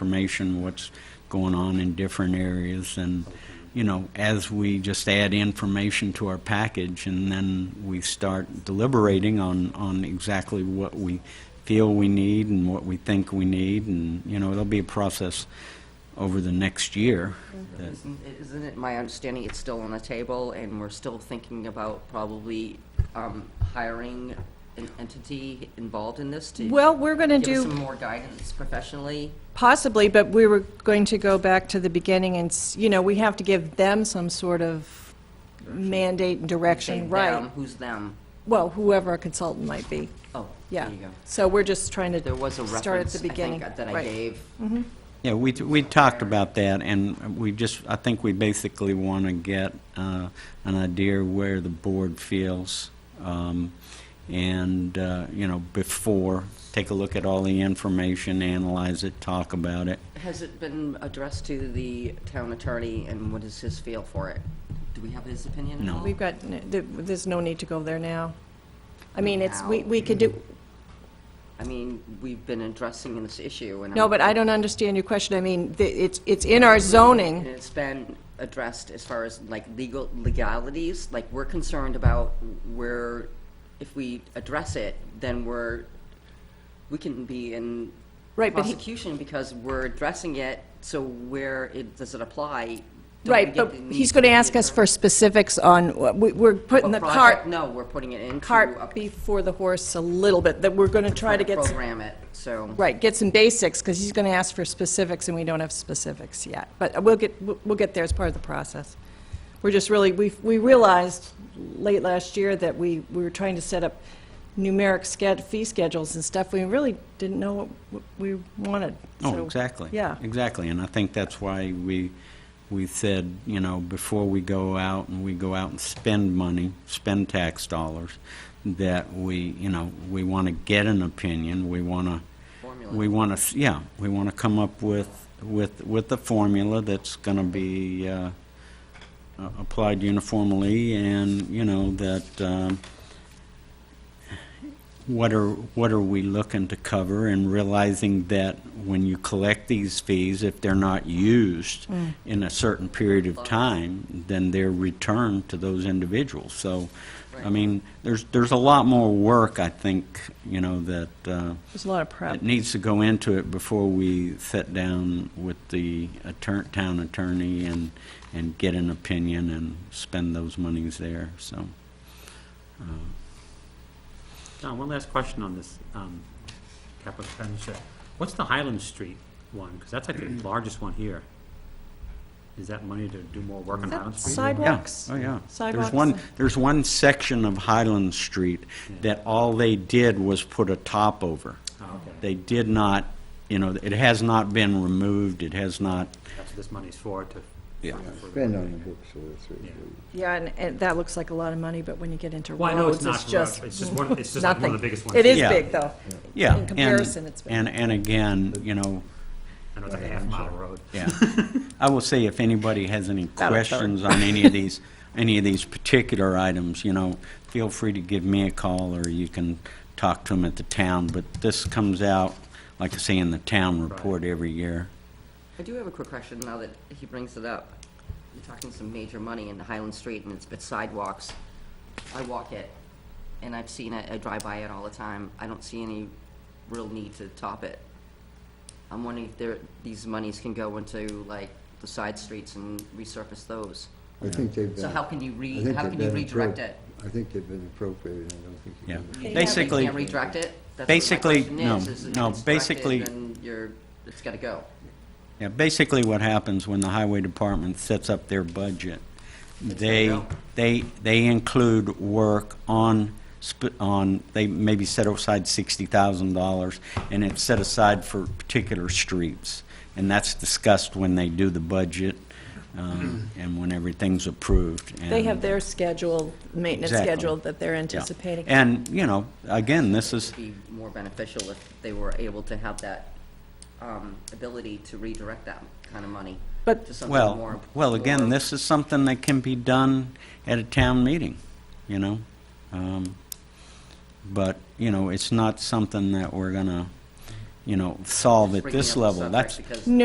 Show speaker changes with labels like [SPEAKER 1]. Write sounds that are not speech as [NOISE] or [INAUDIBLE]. [SPEAKER 1] information, what's going on in different areas, and, you know, as we just add information to our package, and then we start deliberating on, on exactly what we feel we need and what we think we need, and, you know, it'll be a process over the next year. that-
[SPEAKER 2] Isn't isn't it my understanding it's still on the table, and we're still thinking about probably um, hiring an entity involved in this to
[SPEAKER 3] Well, we're going to
[SPEAKER 2] give us some
[SPEAKER 3] do,
[SPEAKER 2] more guidance professionally?
[SPEAKER 3] possibly, but we were going to go back to the beginning and, s- you know, we have to give them some sort of mandate and
[SPEAKER 2] Say
[SPEAKER 3] direction,
[SPEAKER 2] them,
[SPEAKER 3] right?
[SPEAKER 2] Who's them?
[SPEAKER 3] Well, whoever a consultant might be,
[SPEAKER 2] Oh,
[SPEAKER 3] yeah.
[SPEAKER 2] there you go.
[SPEAKER 3] So we're just trying to
[SPEAKER 2] There was a
[SPEAKER 3] start at
[SPEAKER 2] reference,
[SPEAKER 3] the
[SPEAKER 2] I think,
[SPEAKER 3] beginning.
[SPEAKER 2] that I
[SPEAKER 3] Right.
[SPEAKER 2] gave.
[SPEAKER 1] Yeah, we, we talked about that, and we just, I think we basically want to get uh, an idea where the board feels, um, and, uh, you know, before, take a look at all the information, analyze it, talk about it.
[SPEAKER 2] Has it been addressed to the town attorney, and what is his feel for it? Do we have his opinion at
[SPEAKER 1] No.
[SPEAKER 2] all?
[SPEAKER 3] We've got, n- th- there's no need to go there now. I mean, it's, we we could do,
[SPEAKER 2] I mean, we've been addressing this issue, and.
[SPEAKER 3] no,
[SPEAKER 2] I'm-
[SPEAKER 3] but I don't understand your question. I mean, th- it's it's in our zoning.
[SPEAKER 2] And it's been addressed as far as like legal legalities, like we're concerned about where, if we address it, then we're, we can be in
[SPEAKER 3] Right, but he-
[SPEAKER 2] prosecution because we're addressing it, so where it, does it apply? Don't we
[SPEAKER 3] Right,
[SPEAKER 2] get
[SPEAKER 3] but
[SPEAKER 2] the need
[SPEAKER 3] he's going to
[SPEAKER 2] the
[SPEAKER 3] ask us for
[SPEAKER 2] attorney?
[SPEAKER 3] specifics on, wh- we- we're putting the
[SPEAKER 2] What
[SPEAKER 3] cart,
[SPEAKER 2] project? No, we're putting it into. a-
[SPEAKER 3] cart before the horse a little bit, that we're going to try to get, some-
[SPEAKER 2] Program it, so.
[SPEAKER 3] right, get some basics, because he's going to ask for specifics, and we don't have specifics yet. But we'll get, we'll we'll get there as part of the process. We're just really, we we realized late last year that we, we were trying to set up numeric sched, fee schedules and stuff. We really didn't know what w- we wanted.
[SPEAKER 1] Oh,
[SPEAKER 3] So,
[SPEAKER 1] exactly.
[SPEAKER 3] Yeah.
[SPEAKER 1] Exactly, and I think that's why we, we said, you know, before we go out and we go out and spend money, spend tax dollars, that we, you know, we want to get an opinion, we want to.
[SPEAKER 2] Formula.
[SPEAKER 1] We want to, yeah, we want to come up with, with, with a formula that's going to be uh, a- applied uniformly and, you know, that, um, what are, what are we looking to cover and realizing that when you collect these fees, if they're not used in a certain period of time, then they're returned to those individuals. So, I
[SPEAKER 2] Right.
[SPEAKER 1] mean, there's, there's a lot more work, I think, you know, that, uh,
[SPEAKER 3] There's a lot of prep.
[SPEAKER 1] it needs to go into it before we sit down with the attorn- town attorney and, and get an opinion and spend those monies there, so.
[SPEAKER 4] John, one last question on this um, capital expenditure. What's the Highland Street one? Because that's like the largest one here. Is that money to do more work on
[SPEAKER 3] Is that
[SPEAKER 4] Highland Street?
[SPEAKER 1] Yeah,
[SPEAKER 3] sidewalks?
[SPEAKER 1] oh, yeah. There's
[SPEAKER 3] Sidewalks
[SPEAKER 1] one,
[SPEAKER 3] and-
[SPEAKER 1] there's one section of Highland Street that all they did was put a top over.
[SPEAKER 4] Oh, okay.
[SPEAKER 1] They did not, you know, it has not been removed, it has not,
[SPEAKER 4] That's what this money's for, to.
[SPEAKER 1] Yeah.
[SPEAKER 4] for-
[SPEAKER 5] Spend on the books, so that's
[SPEAKER 4] Yeah.
[SPEAKER 5] it.
[SPEAKER 3] Yeah, and, and that looks like a lot of money, but when you get into
[SPEAKER 4] Well, I know
[SPEAKER 3] roads,
[SPEAKER 4] it's not,
[SPEAKER 3] it's
[SPEAKER 4] for us.
[SPEAKER 3] just
[SPEAKER 4] it's just one, it's just like one
[SPEAKER 3] nothing.
[SPEAKER 4] of the biggest ones.
[SPEAKER 3] It is
[SPEAKER 1] Yeah.
[SPEAKER 3] big, though.
[SPEAKER 1] yeah.
[SPEAKER 3] In
[SPEAKER 1] and-
[SPEAKER 3] comparison, it's big.
[SPEAKER 1] And, and again, you know,
[SPEAKER 4] I know it's like a half mile road.
[SPEAKER 3] [LAUGHS]
[SPEAKER 1] Yeah. I will say, if anybody has any
[SPEAKER 3] a third.
[SPEAKER 1] questions on any of these, any of these particular items, you know, feel free to give me a call, or you can talk to them at the town, but this comes out, like I say, in the town report every year.
[SPEAKER 2] I do have a quick question now that he brings it up. You're talking some major money in Highland Street and it's bit sidewalks. I walk it and I've seen it, I drive by it all the time. I don't see any real need to top it. I'm wondering if there, these monies can go into like the side streets and resurface those.
[SPEAKER 5] I think they've been.
[SPEAKER 2] So how can you
[SPEAKER 5] I
[SPEAKER 2] re,
[SPEAKER 5] think
[SPEAKER 2] how
[SPEAKER 5] they've
[SPEAKER 2] can you
[SPEAKER 5] been
[SPEAKER 2] redirect
[SPEAKER 5] appro-
[SPEAKER 2] it?
[SPEAKER 5] I think they've been appropriated, I don't think.
[SPEAKER 1] Yeah.
[SPEAKER 5] you can-
[SPEAKER 2] You can't-
[SPEAKER 1] Basically-
[SPEAKER 2] You can't redirect it? That's what my
[SPEAKER 1] Basically,
[SPEAKER 2] question
[SPEAKER 1] no,
[SPEAKER 2] is, is if
[SPEAKER 1] no,
[SPEAKER 2] it's directed,
[SPEAKER 1] basically-
[SPEAKER 2] Then you're, it's gotta go.
[SPEAKER 1] Yeah, basically what happens when the highway department sets up their budget, they,
[SPEAKER 2] go.
[SPEAKER 1] they, they include work on, sp- on, they maybe set aside sixty thousand dollars, and it's set aside for particular streets. And that's discussed when they do the budget, um,
[SPEAKER 2] Mm-hmm.
[SPEAKER 1] and when everything's approved.
[SPEAKER 3] They have
[SPEAKER 1] and-
[SPEAKER 3] their schedule, maintenance
[SPEAKER 1] Exactly.
[SPEAKER 3] schedule that they're
[SPEAKER 1] yeah.
[SPEAKER 3] anticipating.
[SPEAKER 1] And, you know, again, this is,
[SPEAKER 2] be more beneficial if they were able to have that um, ability to redirect that kind of money
[SPEAKER 3] But-
[SPEAKER 2] to something more.
[SPEAKER 1] Well, well, again,
[SPEAKER 2] more-
[SPEAKER 1] this is something that can be done at a town meeting, you know? Um, But, you know, it's not something that we're gonna, you know, solve at
[SPEAKER 2] Breaking
[SPEAKER 1] this
[SPEAKER 2] up the
[SPEAKER 1] level.
[SPEAKER 2] subject
[SPEAKER 1] That's,
[SPEAKER 2] because-
[SPEAKER 3] No,